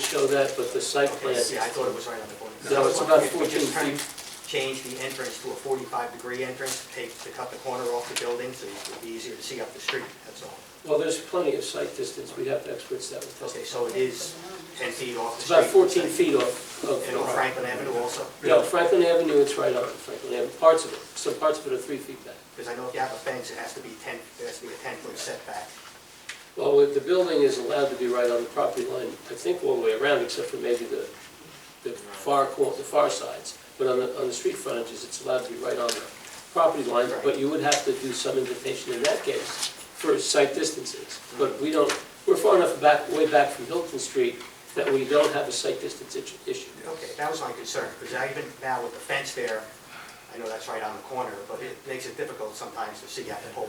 show that, but the site plan, Yeah, I thought it was right on the corner. No, it's about If we just 14 turn- Change the entrance to a forty-five degree entrance, take, to cut the corner off the building, so it would be easier to see up the street, that's all. well, there's plenty of site distance, we'd have experts that would Okay, testify. so it is ten feet off the It's street. about 14 feet off of. And on Franklin Avenue also, No, Franklin Avenue, it's right on Franklin Avenue, parts of it, some parts of it are three feet back. because I know if you have a fence, it has to be ten, it has to be a ten-foot setback. Well, the building is allowed to be right on the property line, I think one way around, except for maybe the, the far cor, the far sides. But on the, on the street frontages, it's allowed to be right on the property line, but you would have to do some indentation in that case for site distances. But we don't, we're far enough back, way back from Hilton Street that we don't have a site distance itch- issue. Okay, that was my concern, because I even now with the fence there, I know that's right on the corner, but it makes it difficult sometimes to see out the pole.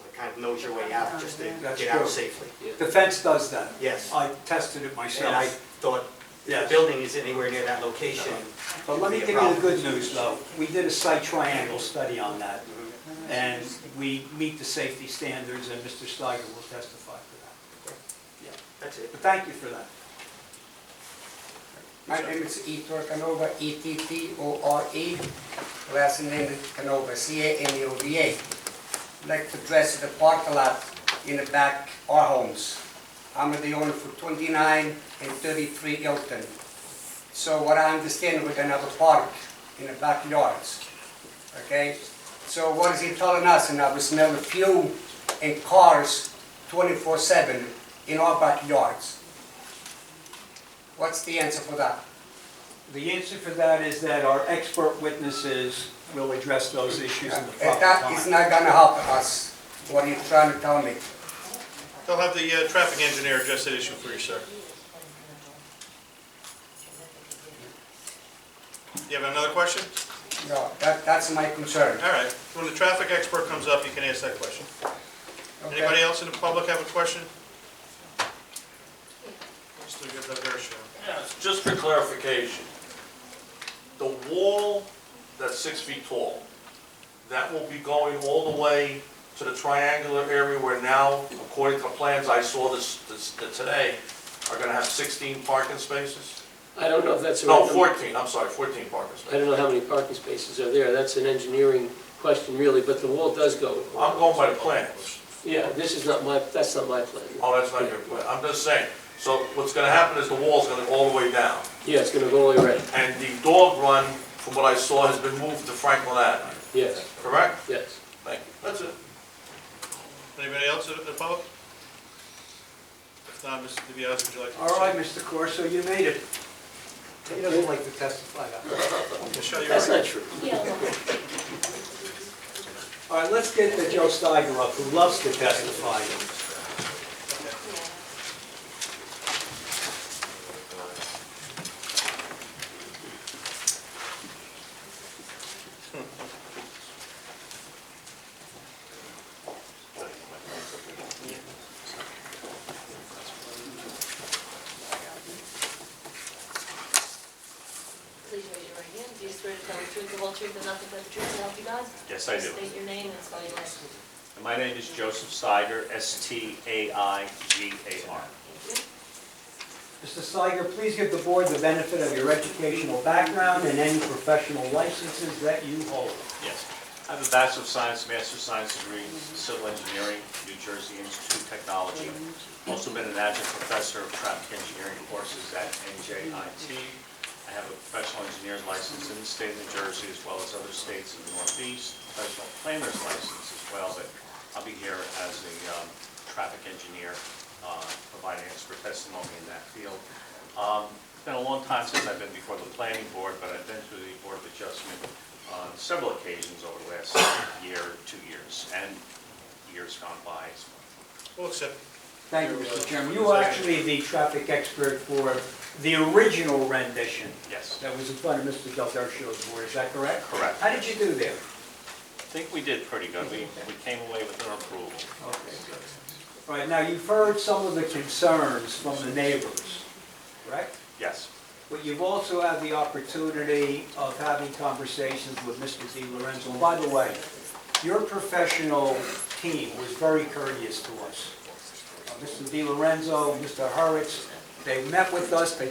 Like, Kind of knows your way out just to That's get out true. safely. The fence does that. Yes. I tested it And I myself. thought, if the Yes. building is anywhere near that location. But let me give you the good news, though. We did a site triangle study on that, and we meet the safety standards, and Mr. Steiger will testify for that. That's it. But thank you for that. My name is Ettore Canova, E E-T-T-O-R-E, E, last name is Canova, C-A-N-O-V-A. Like to dress the parking lot in the back, our homes. I'm the owner for 29 and 33 Hilton. So what I understand, we're gonna have a park in the backyards, okay? So what is he telling us? And I will smell the fuel and cars 24/7 in our backyards. What's the answer for that? The answer for that is that our expert witnesses will address those issues in the If That is proper time. not gonna help us, what you're trying to tell me. They'll have the uh, traffic engineer address that issue for you, sir. You have another question? No, that, that's my concern. All right, when the traffic expert comes up, you can ask that question. Okay? Anybody else in the public have a question? Mr. Gilberto. Yes, just for clarification, the wall that's six feet tall, that will be going all the way to the triangular area where now, according to plans I saw this, this, that today, are gonna have sixteen parking spaces? I don't know if that's a. No, random- fourteen, I'm sorry, fourteen parking I spaces. don't know how many parking spaces are there, that's an engineering question really, but the wall does go. I'm going by the plans. Yeah, this is not my, that's not my plan. Oh, that's not your plan, I'm just saying. So what's gonna happen is the wall's gonna go all the way down. Yeah, it's gonna go all the way around, And the dog run, from what I saw, has been moved to Franklin Avenue, yes, correct? yes. Thank you, that's it. Anybody else in the public? If not, Mr. DiBiase, would you like to? All right, Mr. Corso, you made it. He doesn't like to testify. Michelle, you're That's right. not true. All right, let's get the Joe Steiger up, who loves to testify. Please raise your right hand. Do you swear to tell the truth, the whole truth, and nothing but the truth, so help you God? Yes, I do. State your name and spell your last name. And My name is Joseph Steiger, S-T-A-I-G-A-R. Thank you. Mr. Steiger, please give the board the benefit of your educational background and any professional licenses that you hold. Yes. I have a Bachelor of Science, Master of Science degree in Civil Engineering, New Jersey Institute of Technology. Also been an adjunct professor of traffic engineering courses at NJIT. I have a professional engineer's license in the state of New Jersey as well as other states in the Northeast, professional planner's license as well, but I'll be here as a um, traffic engineer, uh, providing expert testimony in that field. Um, It's been a long time since I've been before the planning board, but I've been to the Board of Adjustment on several occasions over the last year, two years, and years gone by as well. We'll accept. Thank you, Mr. Chairman. You are actually the traffic expert for the original rendition Yes, that was in front of Mr. Del Dercio's board, is that correct? Correct. How did you do there? I think we did pretty good. We, we came away with an approval. Okay. All right, now you've heard some of the concerns from the neighbors, correct? Yes, But you've also had the opportunity of having conversations with Mr. Di Lorenzo. And By the way, your professional team was very courteous to us. Uh, Mr. Di Lorenzo, Mr. Hurwitz, they met with us, they